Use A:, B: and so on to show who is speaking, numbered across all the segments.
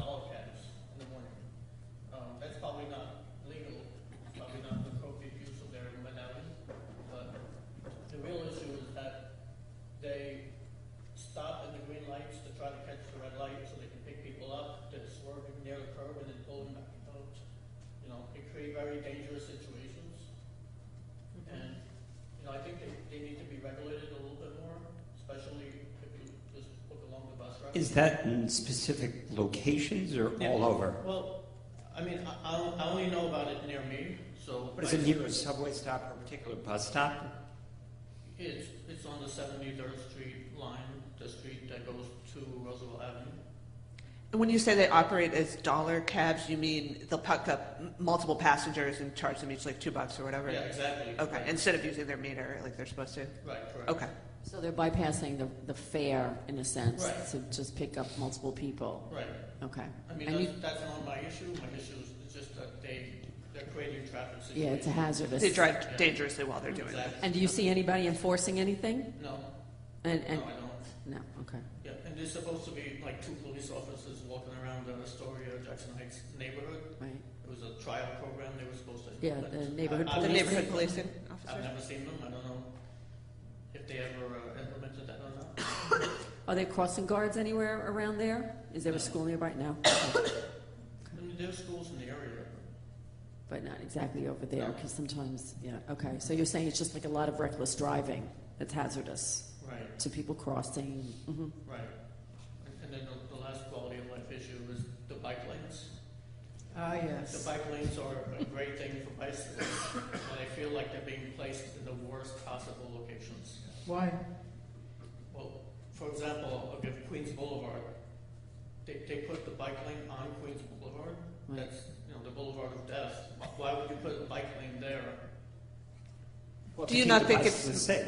A: Um,
B: Mm-hmm.
C: Is that in specific locations or all over?
A: Well, I mean, I- I'll- I only know about it near me, so.
C: Is it near a subway stop or a particular bus stop?
A: It's, it's on the 73rd Street line, the street that goes to Roosevelt Avenue.
B: And when you say they operate as dollar cabs, you mean they'll pack up m- multiple passengers and charge them each like two bucks or whatever?
A: Yeah, exactly.
B: Okay, instead of using their meter like they're supposed to?
A: Right, correct.
B: Okay.
D: So they're bypassing the, the fare, in a sense,
A: Right.
D: to just pick up multiple people.
A: Right.
D: Okay.
A: I mean,
D: And you-
A: that's, that's not my issue. My issue is just that they, they're creating traffic situations.
D: Yeah, it's a hazardous.
B: They drive dangerously while they're doing it.
A: Exactly.
D: And do you see anybody enforcing anything?
A: No,
D: And,
A: no, I
D: and,
A: don't.
D: no, okay.
A: Yeah, and there's supposed to be like two police officers walking around the Astoria, Jackson Heights neighborhood.
D: Right.
A: It was a trial program they were supposed to.
D: Yeah, the
A: I-
D: neighborhood
A: I've
D: police.
A: never
B: The neighborhood
A: seen them.
B: policing
A: I've
B: officer?
A: never seen them. I don't know if they ever uh, implemented that or not.
D: Are there crossing guards anywhere around there? Is there a school nearby? No.
A: I mean, there's schools in the area.
D: But not exactly over there, because sometimes, yeah, okay. So you're saying it's just like a lot of reckless driving that's hazardous
A: Right,
D: to people crossing? Mhm.
A: right. And- And then the- the last quality of life issue is the bike lanes.
E: Ah,
A: The
E: yes.
A: bike lanes are a great thing for bicyclists, but I feel like they're being placed in the worst possible locations.
E: Why?
A: Well, for example, I'll give Queens Boulevard. They, they put the bike lane on Queens Boulevard.
D: Right.
A: That's, you know, the boulevard of death. Why- Why would you put a bike lane there?
C: Well,
B: Do you not think
C: it's
B: it's-
C: safe?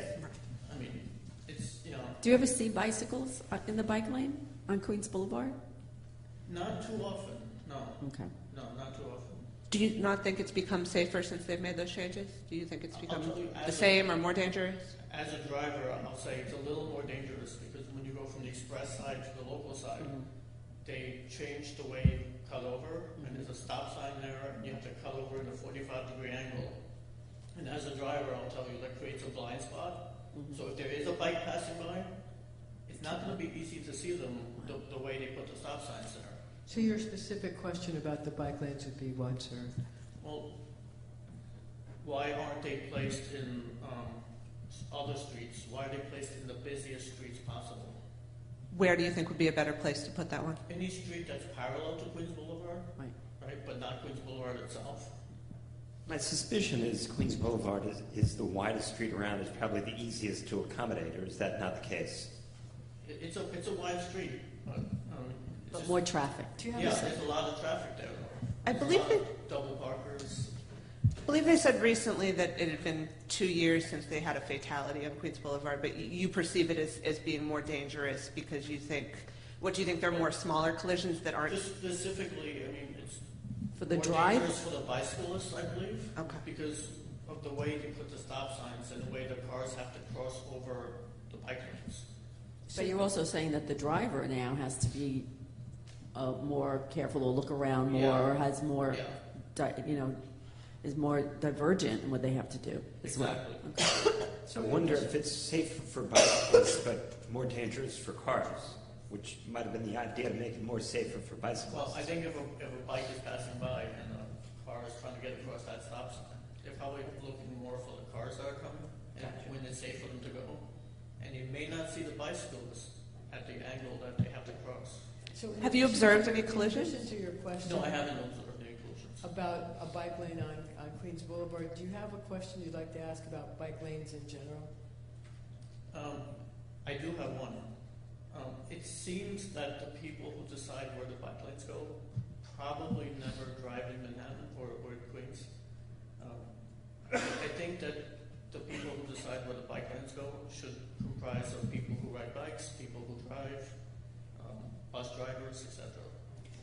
A: I mean, it's, you know,
D: Do you ever see bicycles uh, in the bike lane on Queens Boulevard?
A: not too often. No,
D: Okay.
A: no, not too often.
B: Do you not think it's become safer since they've made those changes? Do you think it's
A: I'll
B: become
A: tell you, as
B: the
A: of-
B: same or more dangerous?
A: As a driver, I'll say it's a little more dangerous because when you go from the express side to the local side,
D: Mhm.
A: they change the way you cut over, and there's a stop sign there, and you have to cut over in a 45 degree angle. And as a driver, I'll tell you, that creates a blind spot.
D: Mhm.
A: So if there is a bike passing by, it's not going to be easy to see them the, the way they put the stop signs there.
E: So your specific question about the bike lanes would be what, sir?
A: Well, why aren't they placed in um, s- other streets? Why are they placed in the busiest streets possible?
B: Where do you think would be a better place to put that one?
A: Any street that's parallel to Queens Boulevard,
D: Right.
A: right, but not Queens Boulevard itself.
C: My suspicion is Queens Boulevard is, is the widest street around. It's probably the easiest to accommodate, or is that not the case?
A: It, it's a it's a wide street, but um, it's
D: But
A: just-
D: more traffic. Do you
A: yeah, there's a lot of traffic there. Though.
B: I
A: There's a
B: believe
A: lot of double parkers.
B: I believe they said recently that it had been two years since they had a fatality on Queens Boulevard, but y- you perceive it as, as being more dangerous because you think, what do you think, they're more smaller collisions that aren't?
A: Just specifically, I mean, it's
D: For the
A: more
D: drive?
A: dangerous for the bicyclists, I believe,
B: Okay.
A: because of the way they put the stop signs and the way the cars have to cross over the bike lanes.
D: But you're also saying that the driver now has to be uh, more careful or look around more
A: Yeah.
D: or has more,
A: Yeah.
D: di- you know, is more divergent in what they have to do as
A: exactly.
D: well.
C: I wonder if it's safer for bicyclists but more dangerous for cars, which might have been the idea to make it more safer for
A: Well,
C: bicyclists.
A: I think if a, if a bike is passing by and a car is trying to get across that stop sign, they're probably looking more for the cars that are coming and when it's safe for them to go. And you may not see the bicyclists at the angle that they have to cross.
E: So in
B: Have you
E: addition-
B: observed any
E: in
B: collisions?
E: addition to your question
A: No, I haven't observed any collisions.
E: about a bike lane on, on Queens Boulevard, do you have a question you'd like to ask about bike lanes in general?
A: Um, I do have one. Um, it seems that the people who decide where the bike lanes go probably never drive in Manhattan or, or in Queens. Um, I think that the people who decide where the bike lanes go should comprise of people who ride bikes, people who drive, um, bus drivers, etc.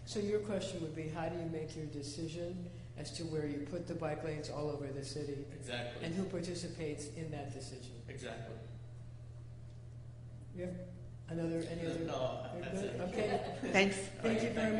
E: So your question would be, how do you make your decision as to where you put the bike lanes all over the city
A: Exactly.
E: and who participates in that decision?
A: exactly.
E: You have another, any other?
A: No, that's it.
E: Okay,
B: Thanks.
A: All right,
E: thank you very much.